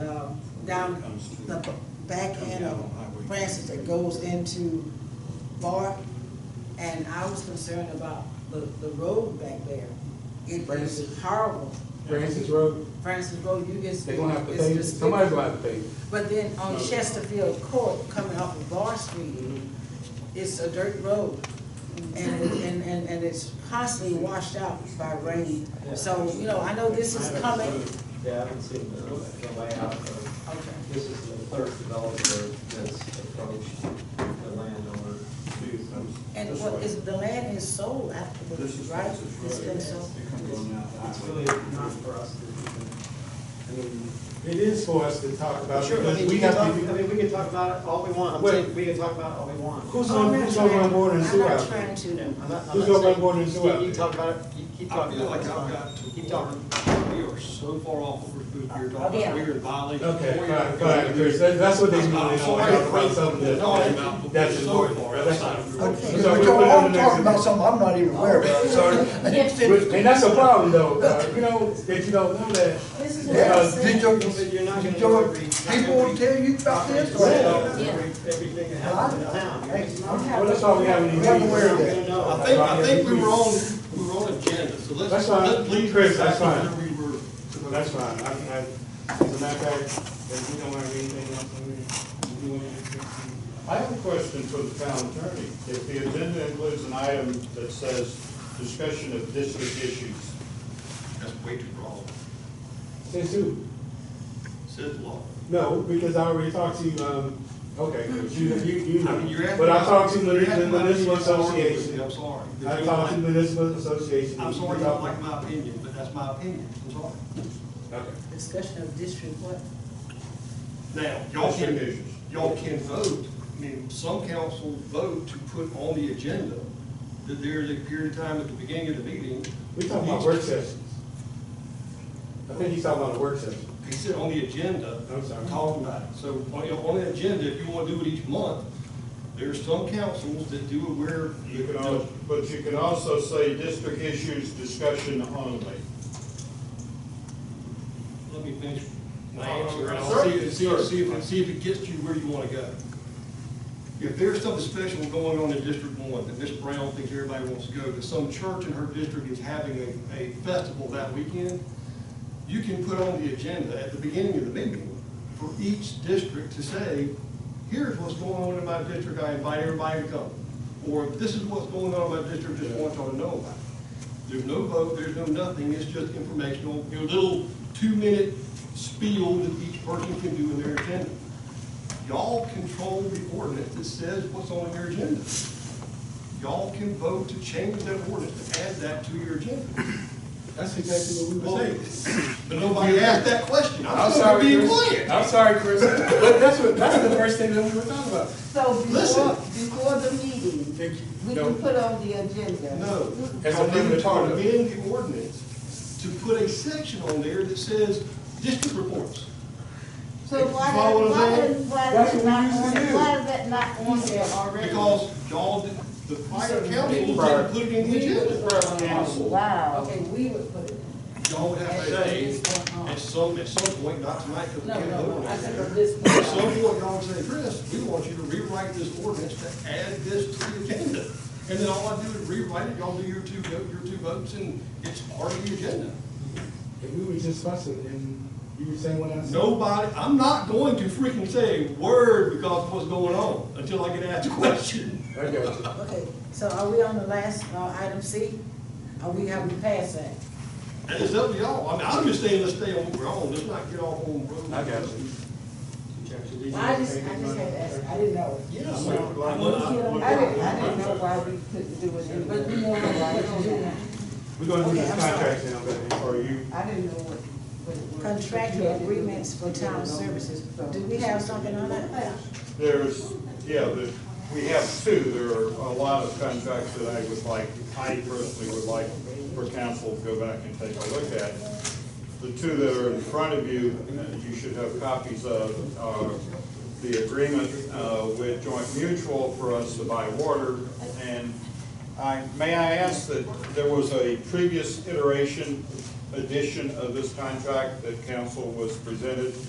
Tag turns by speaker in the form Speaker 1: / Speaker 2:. Speaker 1: um, down
Speaker 2: Comes through.
Speaker 1: the b- back
Speaker 2: Comes
Speaker 1: end
Speaker 2: down
Speaker 1: of
Speaker 2: on Highway.
Speaker 1: Francis that goes into Bar. And I was concerned about the, the road back there. It
Speaker 3: Francis.
Speaker 1: is horrible.
Speaker 3: Francis Road,
Speaker 1: Francis Road, you get.
Speaker 3: they're gonna have to
Speaker 1: it's
Speaker 3: pay,
Speaker 1: just-
Speaker 3: somebody's gonna have to pay.
Speaker 1: But then on
Speaker 3: No.
Speaker 1: Chesterfield Court, coming off of Bar Street, it's a dirt road. And, it- and, and, and it's constantly washed out by rain. So, you know, I know this is coming.
Speaker 4: Yeah, I haven't seen the, the layout of,
Speaker 1: Okay.
Speaker 4: this is the third developer that's approached the landowner.
Speaker 1: And what is, the land is sold after the,
Speaker 2: This is
Speaker 1: right?
Speaker 2: Francis
Speaker 1: It's
Speaker 2: Road.
Speaker 1: been sold.
Speaker 2: It comes on out.
Speaker 4: It's really not for us to even, I mean.
Speaker 3: It is for us to talk about,
Speaker 4: Sure, I
Speaker 3: because
Speaker 4: mean,
Speaker 3: we
Speaker 4: we can
Speaker 3: have
Speaker 4: talk, I
Speaker 3: to be,
Speaker 4: mean, we can talk about it all we want, I'm
Speaker 3: Wait.
Speaker 4: saying, we can talk about it all we want.
Speaker 3: who's
Speaker 1: I'm
Speaker 3: on,
Speaker 1: not
Speaker 3: who's on
Speaker 1: trying-
Speaker 3: my board and
Speaker 1: I'm
Speaker 3: sewer
Speaker 1: not
Speaker 3: out there?
Speaker 1: trying to,
Speaker 4: I'm not, I'm
Speaker 3: Who's
Speaker 4: not
Speaker 3: on my
Speaker 4: saying-
Speaker 3: board and sewer out
Speaker 4: You
Speaker 3: there?
Speaker 4: talk about it, you keep
Speaker 2: I
Speaker 4: talking
Speaker 2: feel
Speaker 4: about
Speaker 2: like
Speaker 4: it,
Speaker 2: I've
Speaker 4: it's
Speaker 2: got
Speaker 4: fine.
Speaker 2: to.
Speaker 4: keep talking. We are so far off what we're supposed to be,
Speaker 1: Yeah.
Speaker 4: we're in violation.
Speaker 3: Okay,
Speaker 4: We're-
Speaker 3: fine, fine, because that- that's what they mean, they want to talk about something that's, that's important. That's-
Speaker 5: Okay,
Speaker 3: So
Speaker 5: but
Speaker 3: we'll
Speaker 5: y'all
Speaker 3: put it on
Speaker 5: all
Speaker 3: the next
Speaker 5: talking about
Speaker 3: agenda.
Speaker 5: something I'm not even aware of, so.
Speaker 3: And that's a problem though, uh, you know, that you don't know that.
Speaker 1: This is what I'm
Speaker 5: Yeah,
Speaker 1: saying.
Speaker 5: did your,
Speaker 4: But you're not
Speaker 5: did
Speaker 4: gonna
Speaker 5: your
Speaker 4: agree.
Speaker 5: people tell you about this? or-
Speaker 4: Well,
Speaker 6: Yeah.
Speaker 4: Everything that happens in town.
Speaker 5: Hey, I'm-
Speaker 3: Well, that's all we have in these
Speaker 5: I'm aware of
Speaker 3: meetings.
Speaker 5: that.
Speaker 4: No,
Speaker 7: I think, I think we were on, we were on agenda, so let's,
Speaker 3: That's fine.
Speaker 7: let's leave
Speaker 3: Chris,
Speaker 7: this
Speaker 3: that's
Speaker 7: back
Speaker 3: fine.
Speaker 7: where we were.
Speaker 3: That's fine, I, I, as a matter of fact, if we don't have anything else, I'm gonna, you want to
Speaker 7: I have a question for the town attorney. If the agenda includes an item that says discussion of district issues. That's way too broad.
Speaker 3: Since who?
Speaker 7: Says law.
Speaker 3: No, because I already talked to you, um, okay, but you, you, you
Speaker 7: I mean, you're
Speaker 3: know.
Speaker 7: asking-
Speaker 3: But I talked to
Speaker 7: you're asking
Speaker 3: the
Speaker 7: my
Speaker 3: municipal
Speaker 7: opinion, I'm sorry.
Speaker 3: association.
Speaker 7: I'm sorry.
Speaker 3: I talked to the municipal association.
Speaker 7: I'm sorry, you don't like my opinion, but that's my opinion, I'm sorry.
Speaker 3: Okay.
Speaker 1: Discussion of district what?
Speaker 7: Now, y'all
Speaker 3: District
Speaker 7: can,
Speaker 3: issues.
Speaker 7: y'all can vote, I mean, some councils vote to put on the agenda that there is a period of time at the beginning of the meeting.
Speaker 3: We talking about work sessions. I think he's talking about a work session.
Speaker 7: He said on the agenda,
Speaker 3: I'm sorry.
Speaker 7: talking about it. So on, on the agenda, if you want to do it each month, there's some councils that do it where.
Speaker 8: You can al, but you can also say district issues discussion only.
Speaker 7: Let me finish my answer, and I'll see, see, see if, see if it gets you where you want to go. If there's something special going on in District One, that Miss Brown thinks everybody wants to go, that some church in her district is having a, a festival that weekend, you can put on the agenda at the beginning of the meeting for each district to say, here's what's going on in my district, I invite everybody to come. Or this is what's going on in my district, just want y'all to know about it. There's no vote, there's no nothing, it's just informational, your little two-minute spiel that each person can do in their agenda. Y'all control the ordinance that says what's on your agenda. Y'all can vote to change that ordinance, to add that to your agenda.
Speaker 3: That's exactly what we
Speaker 7: Well,
Speaker 3: were saying.
Speaker 7: But nobody asked that question. I'm still
Speaker 3: sorry,
Speaker 7: being
Speaker 3: Chris.
Speaker 7: quiet.
Speaker 3: I'm sorry, Chris, but that's what, that's the first thing that we were talking about.
Speaker 9: So
Speaker 7: Listen.
Speaker 9: before, before the meeting,
Speaker 3: Thank you.
Speaker 9: we
Speaker 3: No.
Speaker 9: can put on the agenda.
Speaker 7: No.
Speaker 3: That's
Speaker 7: I'm
Speaker 3: a primitive part of it.
Speaker 7: amend the ordinance to put a section on there that says district reports.
Speaker 9: So why,
Speaker 7: Follow
Speaker 9: did- why,
Speaker 7: that.
Speaker 9: did- why
Speaker 3: That's
Speaker 9: is
Speaker 3: what
Speaker 9: it
Speaker 3: we
Speaker 9: not
Speaker 3: used
Speaker 9: on,
Speaker 3: to
Speaker 9: there?
Speaker 3: do.
Speaker 9: why is that not on there already?
Speaker 7: Because y'all, did- the prior council
Speaker 3: Prior.
Speaker 7: didn't put it in the agenda.
Speaker 9: Wow.
Speaker 1: Okay, we would put it
Speaker 7: Y'all would have to say, at some, at some point, not tonight, because we
Speaker 1: No,
Speaker 7: can't
Speaker 1: no,
Speaker 7: vote
Speaker 1: no,
Speaker 7: on
Speaker 1: I think
Speaker 7: it.
Speaker 1: of this.
Speaker 7: At some point, y'all would say, Chris, we want you to rewrite this ordinance to add this to the agenda. And then all I do is rewrite it, y'all do your two, vote- your two votes, and it's part of the agenda.
Speaker 3: And we were just fussing, and you were saying what I said.
Speaker 7: Nobody, I'm not going to freaking say a word because of what's going on until I get asked a question.
Speaker 3: I got you.
Speaker 1: Okay, so are we on the last, uh, item C? Are we, have we passed that?
Speaker 7: And it's up to y'all. I mean, I'm just saying, let's stay on what we're on. Let's not get off on road.
Speaker 3: I got you.
Speaker 1: I just, I just had to ask, I didn't know.
Speaker 7: Yeah.
Speaker 1: You know,
Speaker 7: Well,
Speaker 1: I was here on-
Speaker 9: I didn't, I didn't know why we couldn't do it in
Speaker 1: But we
Speaker 9: the,
Speaker 1: won't have to do that.
Speaker 3: We're gonna do
Speaker 1: Okay,
Speaker 3: this
Speaker 1: I'm sorry.
Speaker 3: contract now, but for you,
Speaker 9: I didn't know what, what it was.
Speaker 1: Contractual agreements for town services. Do we have something on that?
Speaker 8: There's, yeah, the, we have two, there are a lot of contracts that I would like, I personally would like for council to go back and take a look at. The two that are in front of you, uh, you should have copies of, are the agreement, uh, with Joint Mutual for us to buy water. And I, may I ask that there was a previous iteration, edition of this contract that council was presented